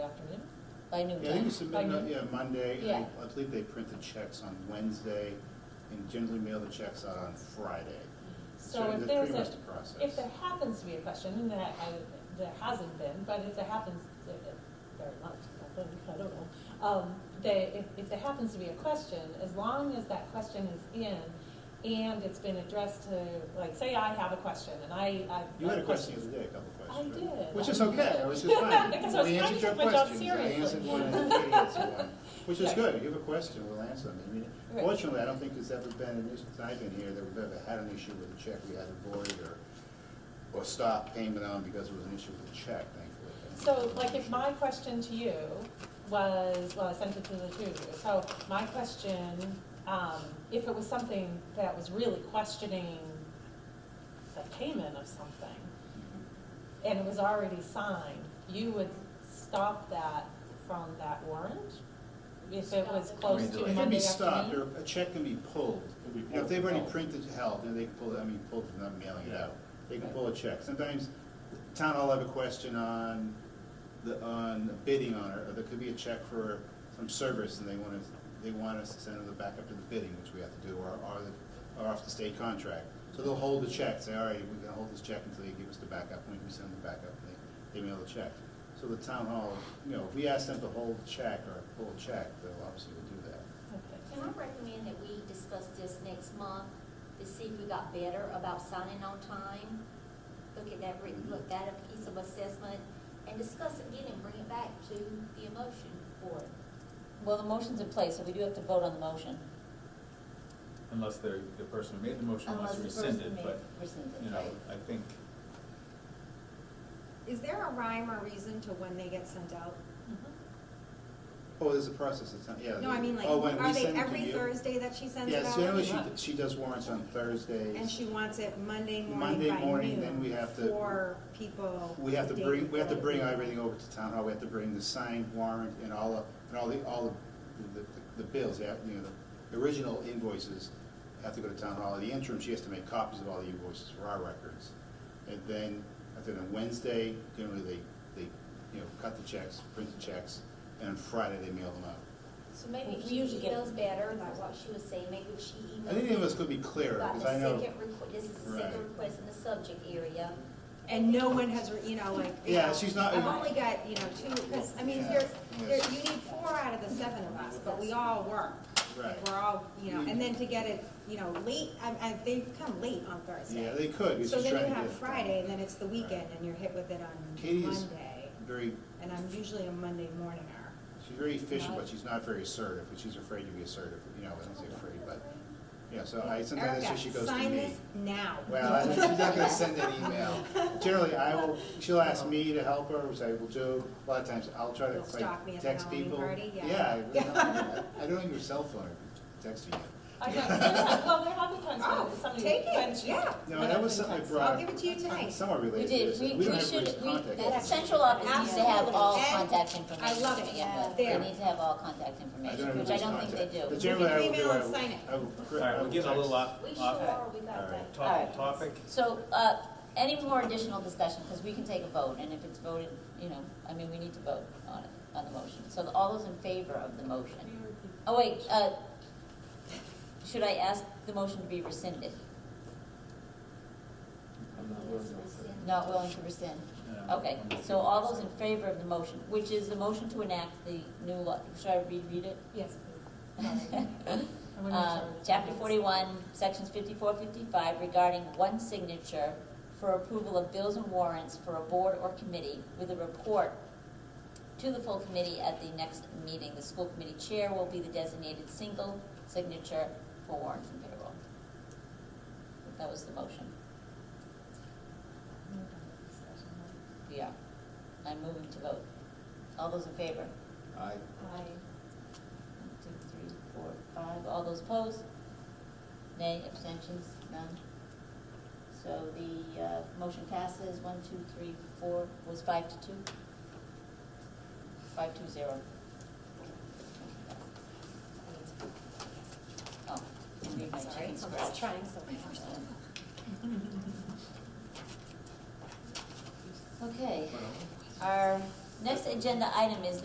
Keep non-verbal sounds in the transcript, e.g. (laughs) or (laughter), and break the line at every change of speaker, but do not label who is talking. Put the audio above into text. by noon
Yeah, I think
time.
you submit,
By
it, yeah, Monday, and
Yeah.
I- I believe they print the checks on Wednesday, and generally mail the checks out on Friday.
So if
that's
there's
pretty much
a,
the
if there
process.
happens to be a question, and that, I, there hasn't been, but if there happens, there- very much, I think, I don't know. Um, they, if, if there happens to be a question, as long as that question is in and it's been addressed to, like, say I have a question and I, I.
You had a question the other day, a couple
I
questions. right?
did.
Which is okay,
(laughs)
which is fine.
Because I was
We
trying
answered
to
your
take my job
questions. I answered
seriously.
one, and Katie answered one, which is
Yeah.
good, you have a question, we'll answer them. I mean,
Right.
fortunately, I don't think there's ever been, an issue since I've been here, that we've ever had an issue with a check we had to void or, or stop payment on because it was an issue with the check, thankfully. I think
So,
that's
like,
an
if
issue.
my question to you was, well, I sent it to the two of you, so my question, um, if it was something that was really questioning the payment of something, and it was already signed, you would stop that from that warrant? If it was
Stop it.
close
It
to
can be
Monday
stopped,
afternoon?
or a check can be pulled.
Can be
You know, If
pulled
they've already
out.
printed held, then they can pull, I mean, pulled from not mailing it
Yeah.
out. They can pull a check. Sometimes the town will have a question on the, on the bidding on it, or there could be a check for some service and they want us, they want us to send them back up to the bidding, which we have to do, or, or, the- or off the state contract. So they'll hold the check, say, all right, we're gonna hold this check until you give us the backup, and we can send the backup, and they, they mail the check. So the town hall, you know, if we ask them to hold the check or pull a check, they'll obviously will do that.
Okay.
Can I recommend that we discuss this next month to see if we got better about signing on time? Look at that, re- look at a piece of assessment and discuss it again and bring it back to the emotion board.
Well, the motion's in place, so we do have to vote on the motion.
Unless the, the person who made the motion
Unless
wants to
the
rescind
person
it,
may
but,
rescind
you
it,
know,
right?
I think,
Is there a rhyme or reason to when they get sent out?
Mhm.
Oh, there's a process, it's not, yeah.
No, I mean, like,
Oh, when we
are they
send it to
every
you?
Thursday that she sends it
Yes,
out?
generally she, she does warrants on Thursdays.
And she wants it Monday
Monday
morning by
morning, then we
noon
have to-
for people.
We have to
the day
bring, we have to
before.
bring everything over to town hall, we have to bring the signed warrant and all, of- and all the, all of the, the- the bills, yeah, you know, the original invoices have to go to town hall, in the interim, she has to make copies of all the invoices for our records. And then, I think on Wednesday, generally they, they, you know, cut the checks, print the checks, and on Friday they mail them out.
So maybe
We
if she
usually get-
emails better, like what she was saying, maybe if she emails.
I think any of us could be clearer,
about
because
the
I know,
second requ- This is the second
Right.
request in the subject area.
And no one has, re- you know, like. you
Yeah,
know,
she's not-
I've only got, you know, two, because, I mean,
Yeah,
there's, there,
yes.
you need four out of the seven of us, but we all work.
right, Mm.
We're all, you know, and then to get it, you know, late, I, I, they've come late on Thursday.
yeah, they could, we
So
just trying
then
to
you
get. it
have
done.
Friday, and then it's the weekend, and you're hit with it on
Katie is
Monday,
very
and I'm usually a Monday morninger.
She's very efficient, but she's not very assertive, but she's afraid to be assertive, you know, I don't say afraid, but, yeah, so I, sometimes that's where she goes to me.
Erica, sign this now.
Well, I- she's not
(laughs)
gonna send an email. Generally, I will, she'll ask me to help her, which I will do. A lot of times, I'll try to
You'll stalk me
like
at the
text
Halloween
people.
party? Yeah.
I really don't-
(laughs)
I don't have your cell phone, I text you.
I got, sometimes-
(laughs)
well, there have been times
Oh,
when somebody.
take
when
it,
she's-
yeah.
No,
when
that
I've
was
been
something I
texting.
brought.
I'll give it to you tonight.
Somewhat
We
related to
did,
this.
we,
We don't
we
have
should,
everybody's
we,
contact
the
information.
central office needs to have all
Absolutely.
contact information.
I love it.
Yeah,
There.
They need to have all contact
I don't
information,
have
which I don't
everybody's
think they
contact. But
do.
generally, I will
You can
do, I
email and
will,
sign it.
I will.
all right, we're getting a little off,
We sure
off.
are, we got
All right,
that.
All right.
Topic, topic,
So, uh, any more additional discussion, because we can take a vote, and if it's voted, you know, I mean, we need to vote on it, on the motion. So all those in favor of the motion? Oh, wait, uh, should I ask the motion to be rescinded?
I'm not worried about
Not willing to rescind?
No.
Okay, so all those in favor of the motion, which is the motion to enact the new law, should I reread it?
Yes, please.
(laughs)
I wanna make
Uh,
sure it's-
Chapter forty-one, sections 54, 55, regarding one signature for approval of bills and warrants for a board or committee with a report to the full committee at the next meeting. The school committee chair will be the designated single signature for warrants and payroll. That was the motion. Yeah, I'm moving to vote. All those in favor?
I,
One, two, three, four, five. All those opposed? Nay, abstentions, none? So the, uh, motion passes, one, two, three, four, was five to two? Five to zero. Oh, I need my
Sorry,
chicken
I'm
scratch.
trying something else.
Okay, our next agenda item is